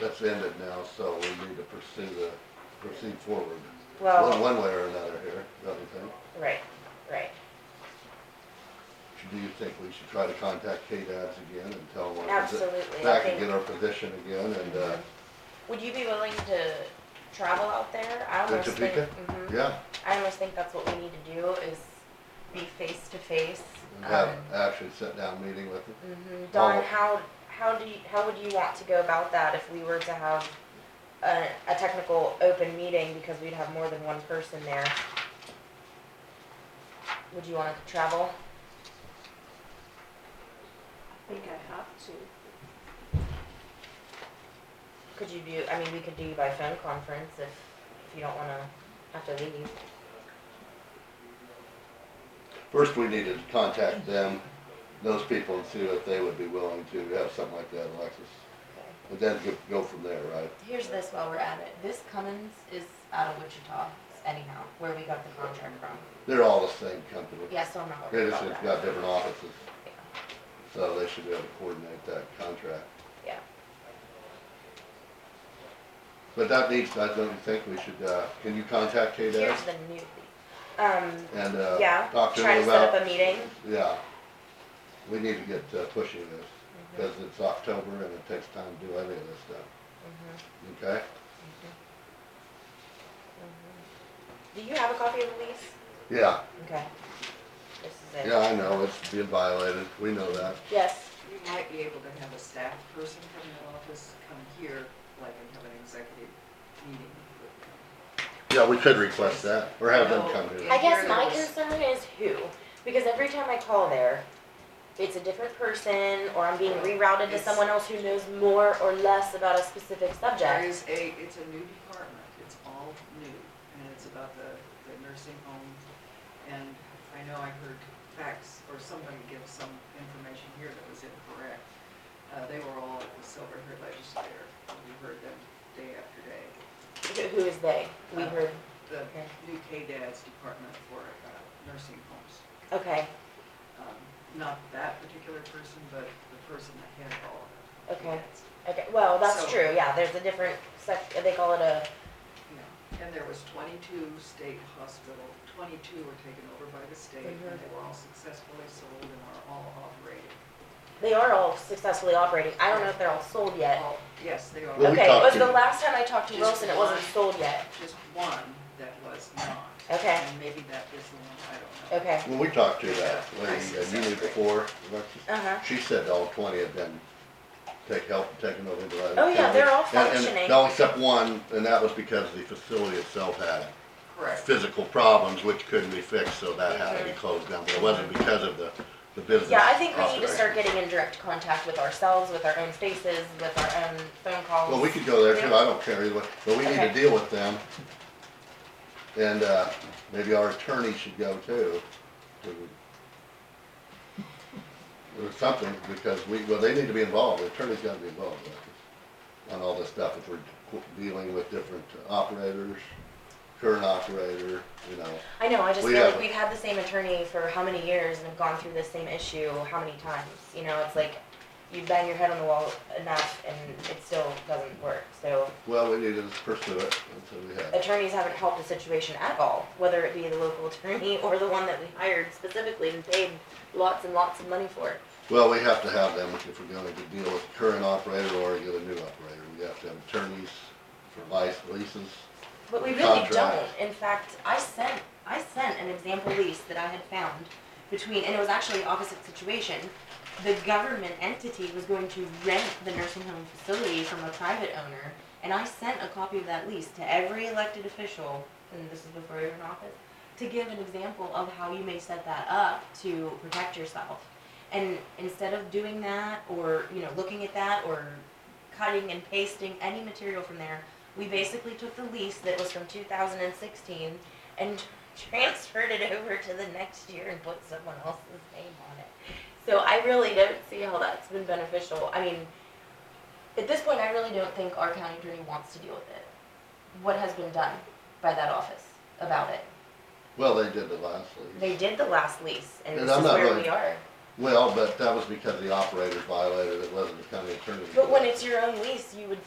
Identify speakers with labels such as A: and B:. A: that's ended now, so we need to pursue the, proceed forward. One,
B: Well,
A: one way or another here, don't you think?
B: right, right.
A: Do you think we should try to contact KDADS again and tell them? our posi-
B: Absolutely, I
A: Back and get
B: think.
A: our position again and, uh,
B: Would you be willing to travel out there? I
A: To
B: almost think,
A: Topeka?
B: mhm.
A: yeah,
B: I almost think that's what we need to do is be face to face.
A: and have actually sit down meeting with them.
B: Mhm. Don,
A: Well-
B: how, how do you, how would you want to go about that if we were to have a, a technical open meeting because we'd have more than one person there? Would you want to travel?
C: I think I have to.
B: Could you do, I mean, we could do by phone conference if, if you don't wanna have to leave.
A: First, we needed to contact them, those people and see if they would be willing to have something like that, Alexis. But then go, go from there, right?
B: Here's this while we're at it. This Cummins is out of Wichita anyhow, where we got the contract from.
A: They're all the same company.
B: Yeah, so I'm not
A: They
B: worried
A: just
B: about
A: have
B: that.
A: got different offices. So they should be able to coordinate that contract.
B: Yeah.
A: But that needs, I don't think we should, uh, can you contact KDAS
B: Here's the new, um,
A: and, uh,
B: yeah,
A: talk to
B: try
A: them
B: to set up
A: about?
B: a meeting.
A: Yeah. We need to get uh, pushing this,
B: Mm-hmm.
A: cause it's October and it takes time to do any of this stuff,
B: Mhm,
A: okay?
B: mhm. Do you have a copy of the lease?
A: Yeah,
B: Okay. This is it.
A: yeah, I know, it's being violated, we know that.
B: Yes,
D: You might be able to have a staff person from the office come here, like, and have an executive meeting with them.
A: Yeah, we could request that, or have them come here.
B: I guess
D: Here
B: my
D: it is.
B: concern is who, because every time I call there, it's a different person, or I'm being rerouted to
D: It's-
B: someone else who knows more or less about a specific
D: There
B: subject.
D: is a, it's a new department, it's all new, and it's about the, the nursing home. And I know I heard facts, or somebody give some information here that was incorrect. Uh, they were all at the Silver Here Legislature, and we heard them day after day.
B: Who- Who is they? We
D: Uh,
B: heard,
D: The
B: Okay.
D: new KDAD's department for, uh, nursing homes.
B: okay,
D: um, not that particular person, but the person that had it all.
B: Okay. okay, well, that's
D: So-
B: true, yeah, there's a different sec, they call it a,
D: Yeah. And there was twenty-two state hospital, twenty-two were taken over by the state, and
B: Mhm.
D: they were all successfully sold and are all operating.
B: they are all successfully operating, I don't know if they're all sold yet.
D: All, yes, they
A: Well,
D: are,
A: we
B: Uh, Okay,
A: talked
B: but
A: to-
B: the last time I talked to
D: Just
B: Wilson, it wasn't
D: one.
B: sold yet,
D: just one that was not.
B: Okay.
D: And maybe that is the one, I don't know.
B: okay,
A: When we talked to that lady, uh, you knew before, Alexis,
B: uh-huh,
A: She said all twenty had been take help, taken over by. the
B: Oh, yeah,
A: county.
B: they're all
A: And- and
B: functioning.
A: No, except one, and that was because the facility itself had
D: Correct.
A: physical problems which couldn't be fixed, so that had to be closed down, but it wasn't because of the, the business.
B: Mm-hmm. yeah, I think we need to
A: operation.
B: start getting in direct contact with ourselves, with our own faces, with our own phone calls.
A: Well, we could go there too, I don't care either way, but we need to
B: Okay.
A: deal with them. And, uh, maybe our attorney should go too. to- Or something, because we, well, they need to be involved, the attorney's gotta be involved with this, on all this stuff, if we're qu- dealing with different operators, current operator, you know.
B: I know, I just
A: We
B: feel like
A: have-
B: we've had the same attorney for how many years and have gone through the same issue how many times? You know, it's like you bang your head on the wall enough and it still doesn't work. So
A: Well, we need to pursue it, that's what we have.
B: attorneys haven't helped the situation at all, whether it be the local attorney or the one that we hired specifically and paid lots and lots of money for.
A: Well, we have to have them if we're gonna deal with current operator or get a new operator, we have to have attorneys for license, leases.
B: But we really don't.
A: Contract.
B: In fact, I sent, I sent an example lease that I had found between, and it was actually opposite situation. The government entity was going to rent the nursing home facility from a private owner, and I sent a copy of that lease to every elected official, and this is before you were in office, to give an example of how you may set that up to protect yourself. And instead of doing that, or, you know, looking at that, or cutting and pasting any material from there, we basically took the lease that was from two thousand and sixteen and transferred it over to the next year and put someone else's name on it. So I really don't see how that's been beneficial. I mean, at this point, I really don't think our county attorney wants to deal with it. What has been done by that office about it?
A: Well, they did the last lease.
B: They did the last lease and
A: And
B: this
A: I'm
B: is
A: not
B: where
A: really-
B: we are.
A: Well, but that was because the operator violated, it wasn't the county attorney.
B: But when it's your own lease, you would